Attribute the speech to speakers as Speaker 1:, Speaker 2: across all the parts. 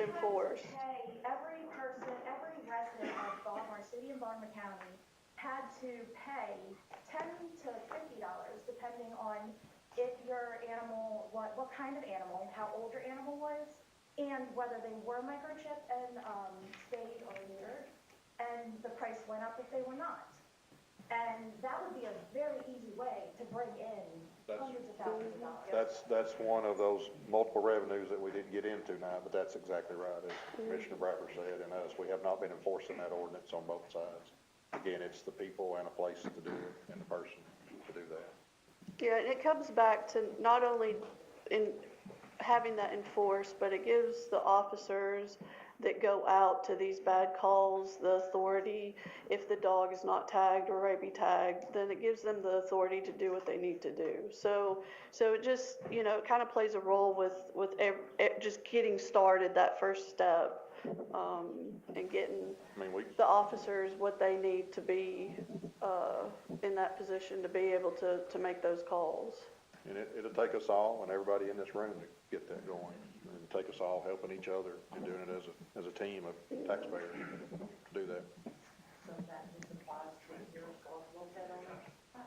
Speaker 1: enforced.
Speaker 2: You had to pay, every person, every resident of Baltimore City and Baltimore County had to pay ten to fifty dollars, depending on if your animal, what, what kind of animal, how old your animal was, and whether they were microchipped and, um, spayed or neutered, and the price went up if they were not. And that would be a very easy way to bring in
Speaker 3: That's-
Speaker 2: hundreds of thousands of dollars.
Speaker 3: That's, that's one of those multiple revenues that we didn't get into tonight, but that's exactly right, as Commissioner Bratcher said, and us, we have not been enforcing that ordinance on both sides. Again, it's the people and a place to do it, and the person to do that.
Speaker 1: Yeah, and it comes back to not only in having that enforced, but it gives the officers that go out to these bad calls, the authority, if the dog is not tagged or rabies tagged, then it gives them the authority to do what they need to do. So, so it just, you know, it kind of plays a role with, with ev- eh, just getting started, that first step, um, and getting
Speaker 3: I mean, we,
Speaker 1: the officers what they need to be, uh, in that position to be able to, to make those calls.
Speaker 3: and it, it'll take us all and everybody in this room to get that going. It'll take us all helping each other and doing it as a, as a team of taxpayers to do that.
Speaker 4: So that just applies to your responsible pet owner?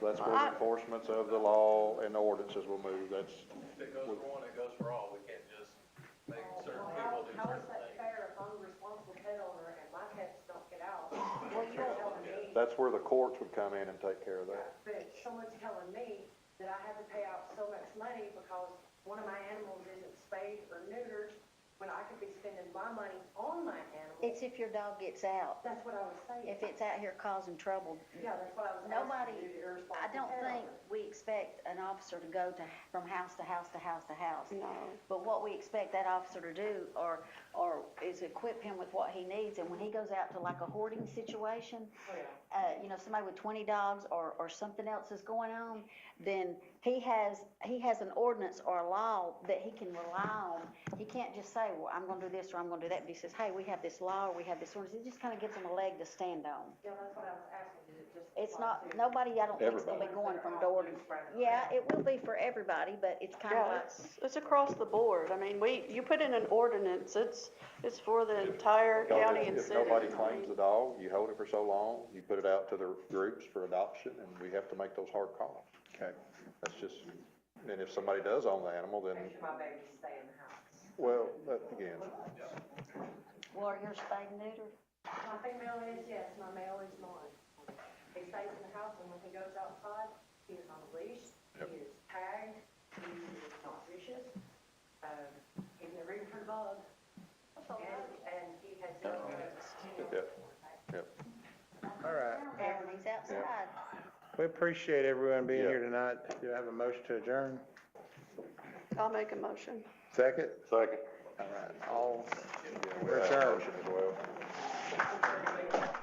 Speaker 3: So that's where the enforcements of the law and ordinances will move, that's,
Speaker 5: If it goes for one, it goes for all, we can't just make certain people
Speaker 4: How,
Speaker 5: do
Speaker 4: how is
Speaker 5: certain
Speaker 4: that
Speaker 5: things.
Speaker 4: fair if I'm a responsible pet owner and my pets don't get out? Well, you're telling me,
Speaker 3: that's where the courts would come in and take care of that.
Speaker 4: but someone's telling me that I have to pay out so much money because one of my animals isn't spayed or neutered, when I could be spending my money on my animal.
Speaker 6: It's if your dog gets out,
Speaker 4: That's what I was saying.
Speaker 6: if it's out here causing trouble.
Speaker 4: Yeah, that's what I was
Speaker 6: Nobody,
Speaker 4: asking you, the irresponsible
Speaker 6: I don't
Speaker 4: pet
Speaker 6: think
Speaker 4: owner.
Speaker 6: we expect an officer to go to, from house to house to house to house.
Speaker 1: No.
Speaker 6: But what we expect that officer to do or, or is equip him with what he needs. And when he goes out to like a hoarding situation, uh, you know, somebody with twenty dogs or, or something else is going on, then he has, he has an ordinance or a law that he can rely on. He can't just say, well, I'm gonna do this or I'm gonna do that. But he says, hey, we have this law or we have this ordinance. It just kinda gives him a leg to stand on.
Speaker 4: Yeah, that's what I was asking, is it just?
Speaker 6: It's
Speaker 4: apply
Speaker 6: not,
Speaker 4: to-
Speaker 6: nobody, I don't think is gonna be
Speaker 4: Everybody.
Speaker 6: going from door to, yeah, it will be for everybody, but it's kinda
Speaker 1: Yeah,
Speaker 6: like,
Speaker 1: it's, it's across the board. I mean, we, you put in an ordinance, it's, it's for the entire
Speaker 3: Because
Speaker 1: county
Speaker 3: if-
Speaker 1: and
Speaker 3: if
Speaker 1: city.
Speaker 3: nobody claims the dog, you hold it for so long, you put it out to the groups for adoption, and we have to make those hard calls.
Speaker 7: Okay.
Speaker 3: That's just, and if somebody does own the animal,
Speaker 4: Make
Speaker 3: then,
Speaker 4: sure my babies stay in the house.
Speaker 3: well, that, again,
Speaker 6: well, you're spayed and neutered.
Speaker 4: My female is, yes, my male is mine. He stays in the house and when he goes outside, he is on a leash,
Speaker 3: Yep.
Speaker 4: he is tagged, he is not vicious. Um, he's never even heard of, and, and he has no.
Speaker 3: Yep.
Speaker 7: All right.
Speaker 6: And he's outside.
Speaker 7: We appreciate everyone being here
Speaker 3: Yeah.
Speaker 7: tonight. Do you have a motion to adjourn?
Speaker 1: I'll make a motion.
Speaker 7: Second?
Speaker 3: second.
Speaker 7: All right. All,
Speaker 3: Yeah, we
Speaker 7: We're
Speaker 3: have a
Speaker 7: adjourned.
Speaker 3: motion as well.